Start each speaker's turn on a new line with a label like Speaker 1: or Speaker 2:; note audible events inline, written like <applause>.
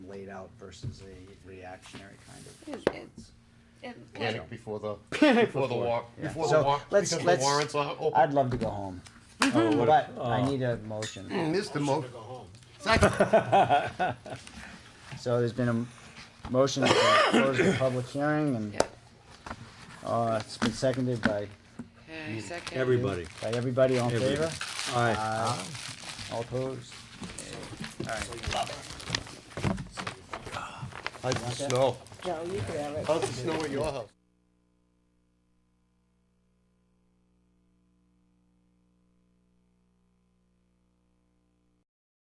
Speaker 1: laid out versus a reactionary kind of
Speaker 2: It- it-
Speaker 1: response.
Speaker 2: It-
Speaker 1: Yeah.
Speaker 3: Panic before the,
Speaker 1: <laughs> Panic
Speaker 3: before the
Speaker 1: before.
Speaker 3: war,
Speaker 1: Yeah.
Speaker 3: before the
Speaker 1: So,
Speaker 3: war,
Speaker 1: let's-
Speaker 3: because the
Speaker 1: let's-
Speaker 3: warrants are
Speaker 1: I'd
Speaker 3: open.
Speaker 1: love to go home,
Speaker 4: Oh,
Speaker 1: but
Speaker 4: what-
Speaker 1: I
Speaker 4: uh,
Speaker 1: need a motion.
Speaker 3: Missed the mo,
Speaker 1: So there's been a m- motion to close the public hearing and,
Speaker 2: yeah.
Speaker 1: uh, it's been seconded by,
Speaker 2: Okay, second.
Speaker 4: Everybody.
Speaker 1: by everybody all in
Speaker 4: Everybody.
Speaker 1: favor?
Speaker 4: Aye.
Speaker 1: Aye. All opposed?
Speaker 3: how's the snow,
Speaker 5: No, you can have it.
Speaker 3: how's the snow at your house?